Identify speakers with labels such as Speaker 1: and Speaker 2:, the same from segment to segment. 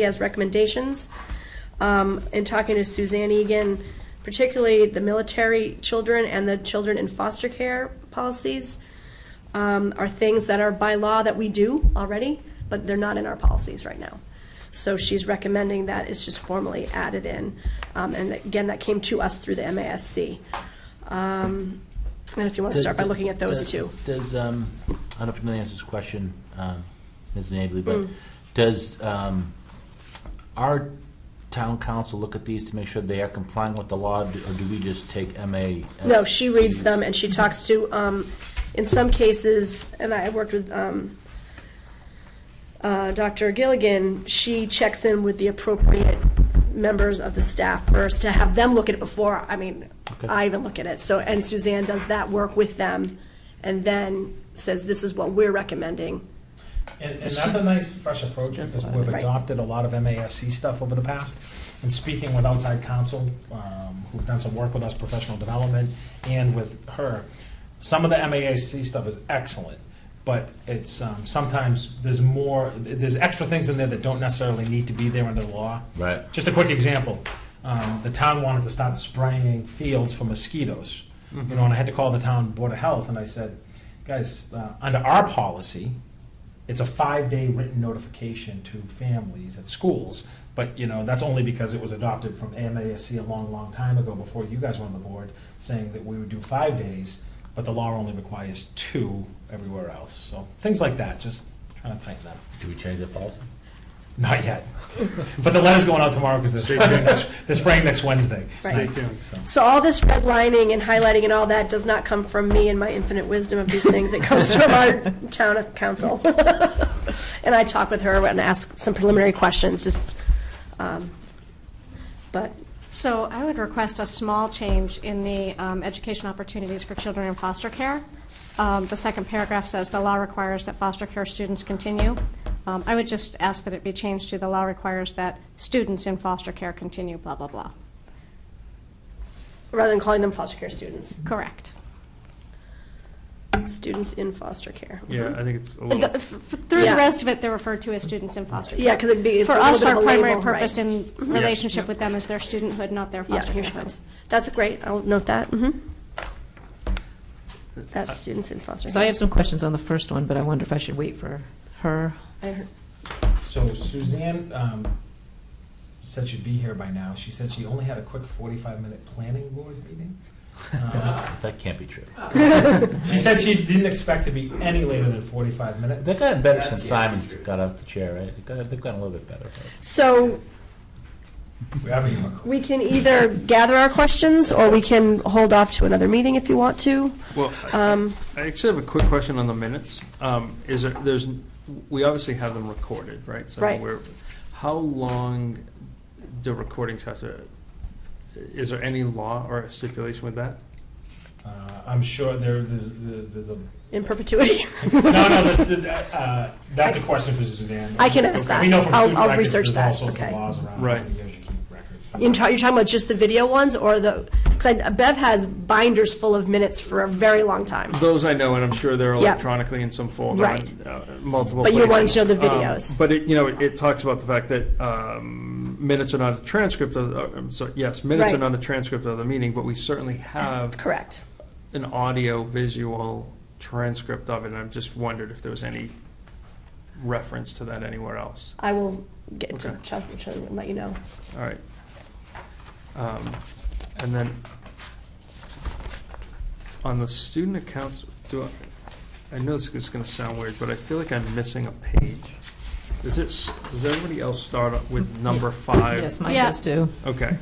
Speaker 1: He has recommendations. Um, in talking to Suzanne Egan, particularly the military children and the children in foster care policies um, are things that are by law that we do already, but they're not in our policies right now. So she's recommending that it's just formally added in. Um, and again, that came to us through the MASC. Um, and if you want to start by looking at those
Speaker 2: Does-
Speaker 1: two.
Speaker 2: Does, um, I don't know if you know the answer to this question, um, Ms. Mably,
Speaker 1: Mm.
Speaker 2: but does um, our town council look at these to make sure they are complying with the law, d- or do we just take MA?
Speaker 1: No, she reads them and she talks to, um, in some cases, and I worked with, um, uh, Dr. Gilligan, she checks in with the appropriate members of the staff first to have them look at it before, I mean,
Speaker 2: Okay.
Speaker 1: I even look at it. So, and Suzanne does that work with them and then says, this is what we're recommending.
Speaker 3: And, and that's a nice, fresh approach, because we've
Speaker 1: Right.
Speaker 3: adopted a lot of MASC stuff over the past. And speaking with outside counsel, um, who've done some work with us, professional development, and with her, some of the MASC stuff is excellent, but it's, um, sometimes there's more, there's extra things in there that don't necessarily need to be there under the law.
Speaker 2: Right.
Speaker 3: Just a quick example, um, the town wanted to start spraying fields for mosquitoes. You know, and I had to call the town board of health, and I said, guys, uh, under our policy, it's a five-day written notification to families at schools. But, you know, that's only because it was adopted from AMASC a long, long time ago, before you guys were on the board, saying that we would do five days, but the law only requires two everywhere else. So, things like that, just trying to tighten that up.
Speaker 2: Do we change the policy?
Speaker 3: Not yet. But the letter's going out tomorrow because they're spraying next, they're spraying next Wednesday.
Speaker 1: Right.
Speaker 3: Stay tuned. So,
Speaker 1: So all this redlining and highlighting and all that does not come from me and my infinite wisdom of these things. It comes from our town council. And I talk with her and ask some preliminary questions, just, um, but,
Speaker 4: So I would request a small change in the um, education opportunities for children in foster care. Um, The second paragraph says, "The law requires that foster care students continue." Um, I would just ask that it be changed to, "The law requires that students in foster care continue," blah, blah, blah.
Speaker 1: rather than calling them foster care students,
Speaker 4: Correct.
Speaker 1: students in foster care.
Speaker 5: Yeah, I think it's a
Speaker 4: The-
Speaker 5: little,
Speaker 4: f- f- Through
Speaker 1: Yeah.
Speaker 4: the rest of it, they're referred to as students in foster care.
Speaker 1: Yeah, because it'd be, it's a
Speaker 4: For
Speaker 1: little
Speaker 4: us,
Speaker 1: bit of
Speaker 4: our
Speaker 1: a label, right?
Speaker 4: primary purpose in relationship
Speaker 5: Mm-hmm. Yeah.
Speaker 4: with them is their studenthood, not their
Speaker 1: Yeah,
Speaker 4: foster
Speaker 1: here
Speaker 4: care.
Speaker 1: she
Speaker 4: hood.
Speaker 1: comes. That's great, I'll note that, hmm That's students in foster care.
Speaker 6: So I have some questions on the first one, but I wonder if I should wait for her.
Speaker 3: so Suzanne um, said she'd be here by now. She said she only had a quick 45 minute planning board meeting. Um,
Speaker 2: That can't be true.
Speaker 3: she said she didn't expect to be any later than 45 minutes.
Speaker 2: They've gotten better since Simon's got off the chair, right? They've got- They've gotten a little bit better. right?
Speaker 1: So
Speaker 3: We haven't even recorded.
Speaker 1: We can either gather our questions, or we can hold off to another meeting if you want to.
Speaker 5: well,
Speaker 1: Um,
Speaker 5: I actually have a quick question on the minutes. Um, Is there, there's, we obviously have them recorded, right? So
Speaker 1: Right.
Speaker 5: we're- How long do recordings have to, is there any law or stipulation with that?
Speaker 3: Uh, I'm sure there, there's, there's a.
Speaker 1: In perpetuity.
Speaker 3: No, no, this, uh, that's a question for Suzanne.
Speaker 1: I can ask that.
Speaker 3: We know from
Speaker 1: I'll-
Speaker 3: student
Speaker 1: I'll
Speaker 3: records,
Speaker 1: research
Speaker 3: there's
Speaker 1: that.
Speaker 3: all sorts of
Speaker 1: Okay.
Speaker 3: laws around how
Speaker 5: Right.
Speaker 3: many years you keep records.
Speaker 1: You're ta- you're talking about just the video ones, or the, because Bev has binders full of minutes for a very long time.
Speaker 5: Those I know, and I'm sure they're
Speaker 1: Yeah.
Speaker 5: electronically in some folder,
Speaker 1: Right.
Speaker 5: in, uh, multiple
Speaker 1: But you
Speaker 5: places.
Speaker 1: wanted to know the
Speaker 5: Um,
Speaker 1: videos.
Speaker 5: But it, you know, it talks about the fact that um, minutes are not a transcript of, uh, I'm sorry, yes, minutes are
Speaker 1: Right.
Speaker 5: not a transcript of the meeting, but we certainly have
Speaker 1: Correct.
Speaker 5: an audio visual transcript of it, and I've just wondered if there was any reference to that anywhere else.
Speaker 1: I will get to
Speaker 5: Okay.
Speaker 1: Chuck and show you and let you know.
Speaker 5: All right. Um, And then, on the student accounts, do I, I know this is gonna sound weird, but I feel like I'm missing a page. Is it, s- does everybody else start with number five?
Speaker 6: Yes, mine
Speaker 4: Yeah.
Speaker 6: does too.
Speaker 5: Okay,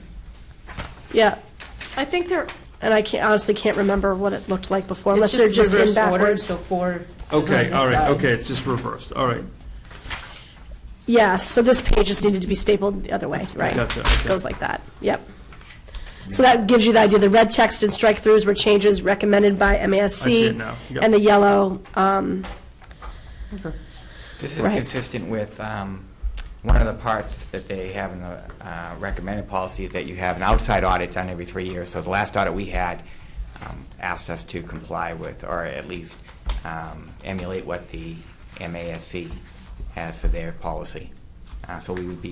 Speaker 1: Yeah,
Speaker 4: I think they're,
Speaker 1: and I can't, honestly can't remember what it looked like before, unless
Speaker 6: It's
Speaker 1: they're just in
Speaker 6: reverse order,
Speaker 1: backwards.
Speaker 6: So four. is on
Speaker 5: okay,
Speaker 6: this
Speaker 5: all right,
Speaker 6: side.
Speaker 5: okay, it's just reversed, all right.
Speaker 1: Yeah, so this page just needed to be stapled the other way, right?
Speaker 5: Gotcha, okay.
Speaker 1: Goes like that, yep. So that gives you the idea, the red text and strike-throughs were changes recommended by MASC.
Speaker 5: I see it now, yep.
Speaker 1: And the yellow, um,
Speaker 7: This is
Speaker 1: Right.
Speaker 7: consistent with um, one of the parts that they have in the uh, recommended policy is that you have an outside audit done every three years. So the last audit we had um, asked us to comply with, or at least um, emulate what the MASC has for their policy. Uh, So we would be